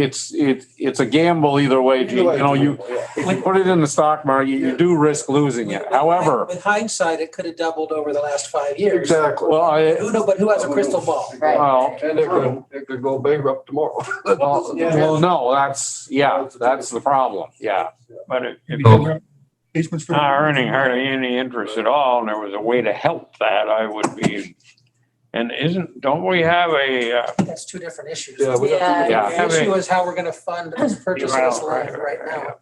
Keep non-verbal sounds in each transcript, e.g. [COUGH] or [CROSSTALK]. it's, it's, it's a gamble either way. Gene. You know, you, if you put it in the stock market, you do risk losing it. However, With hindsight, it could have doubled over the last five years. Exactly. well, I, Who know, but who has a crystal ball? Right. well, And it could, it could go bankrupt tomorrow. [LAUGHS] well, well, no, that's, yeah, that's the problem. Yeah. But if if So- you're Basements for. not earning hardly any interest at all, and there was a way to help that, I would be. And isn't, don't we have a, uh, That's two different issues. Yeah, we Yeah. have to. The Yeah. issue is how we're gonna fund this purchase of this land right now.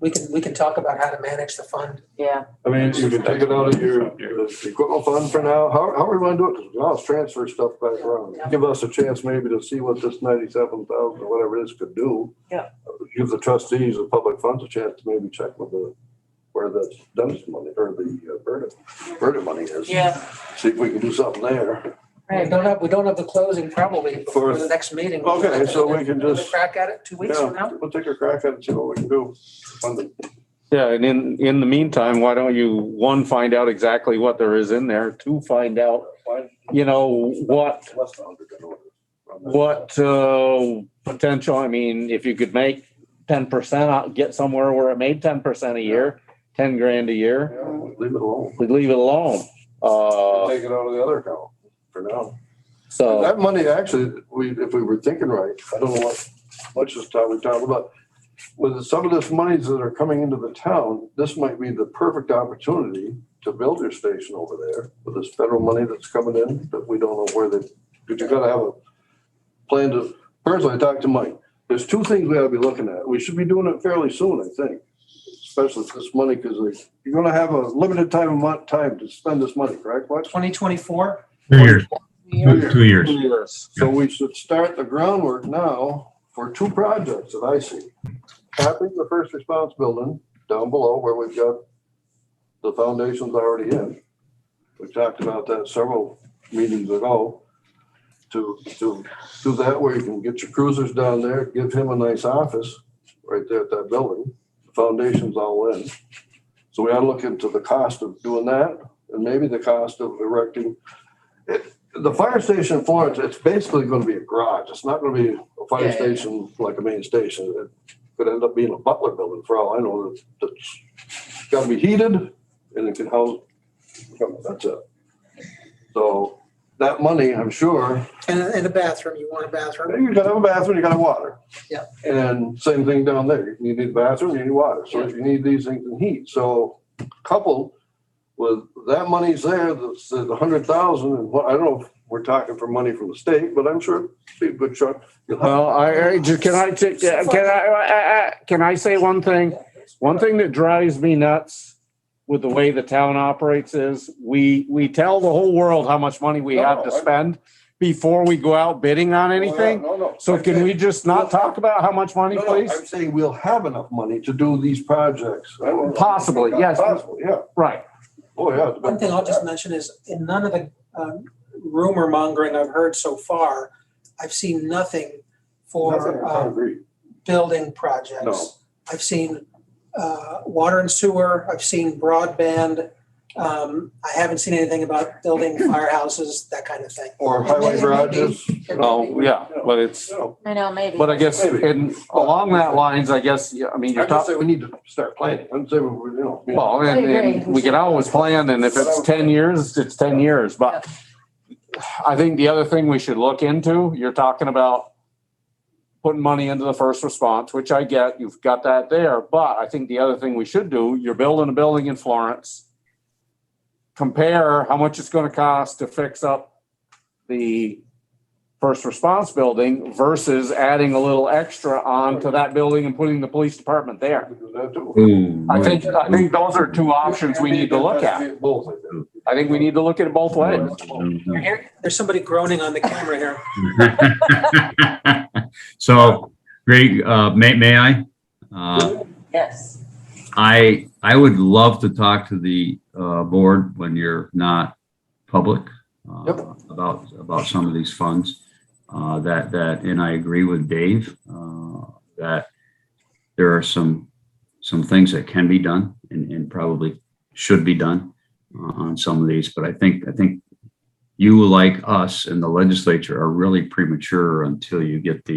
We can, we can talk about how to manage the fund. Yeah, I mean, you can take it out of your equipment fund for now. How, how are we gonna do it? 'Cause Now let's transfer stuff back around. Give us a chance maybe to see what this ninety-seven thousand or whatever it is could do. Yeah. Give the trustees of public funds a chance to maybe check with the, where the Dunn's money or the uh, Berta, Berta money is. yeah, See if we can do something there. We right. don't have, we don't have the closing probably for For- the next meeting. Okay, so we can Another just- Crack at it two weeks from Yeah, now? we'll take a crack at it, see what we can do. Fund it. Yeah. And in, in the meantime, why don't you, one, find out exactly what there is in there, two, find out, Find you know, what less than a hundred in order. What uh, potential, I mean, if you could make ten percent, uh, get somewhere where it made ten percent a year, ten grand a year, Yeah, Leave it alone. we leave it alone. Uh, Take it out of the other account for now. So, That money, actually, we, if we were thinking right, I don't know what, much this time we talked about. With some of this monies that are coming into the town, this might be the perfect opportunity to build your station over there with this federal money that's coming in, but we don't know where they, because you gotta have a plan to, personally, I talked to Mike. There's two things we gotta be looking at. We should be doing it fairly soon, I think, especially with this money, because you're gonna have a limited time, amount time to spend this money, correct, What? Twenty twenty-four? Two years, two two years. So we should start the groundwork now for two projects that I see. Tapping the first response building down below where we've got the foundations already in. We talked about that several meetings ago. To, to do that where you can get your cruisers down there, give him a nice office right there at that building. The Foundation's all in. So we ought to look into the cost of doing that and maybe the cost of erecting the fire station in Florence, it's basically gonna be a garage. It's not gonna be a fire Yeah, yeah, yeah. station like a main station. It could end up being a butler building for all I know. That's- That's gotta be heated and it can house, that's it. So that money, I'm sure, And, and a bathroom, you want a bathroom? you gotta have a bathroom, you gotta have water. Yeah. And same thing down there. You need a bathroom, you need water. So if you need these things in heat, so coupled with that money's there, that's the hundred thousand and what, I don't know if we're talking for money from the state, but I'm sure it'd be a good chunk. You'll have- well, I, I just- can I, t- can I, I- I- can I say one thing? One thing that drives me nuts with the way the town operates is we, we tell the whole world how much money we have to spend before we go out bidding on anything. Oh, No, no. So can we just not talk about how much money, No, no, please? I'm saying we'll have enough money to do these projects. I don't know. Possibly, yes. Possibly, yeah. Right. Oh, yeah. One thing I'll just mention is in none of the um, rumor mongering I've heard so far, I've seen nothing Nothing for I um, agree. building projects. No. I've seen uh, water and sewer, I've seen broadband. Um, I haven't seen anything about building [COUGHS] firehouses, that kind of thing. Or highway garages. Oh, yeah, but it's, No. I know, maybe. but I guess in, along that lines, I guess, yeah, I mean, I you're just talking, say we need to start planning. I'm saying, we- you know. well, and, and we can always plan, and if it's ten years, it's ten years, but I think the other thing we should look into, you're talking about putting money into the first response, which I get, you've got that there, but I think the other thing we should do, you're building a building in Florence. Compare how much it's gonna cost to fix up the first response building versus adding a little extra onto that building and putting the police department there. we do that too. I think, I think those are two options we need to look at. Both, I think. I think we need to look at it both ways. There's somebody groaning on the camera here. [LAUGHS] So, Greg, uh, may, may I? Uh, Yes. I, I would love to talk to the, uh, board when you're not public. uh, Yep. About, about some of these funds, uh, that, that, and I agree with Dave, uh, that there are some, some things that can be done and, and probably should be done uh, on some of these, but I think, I think you like us and the legislature are really premature until you get the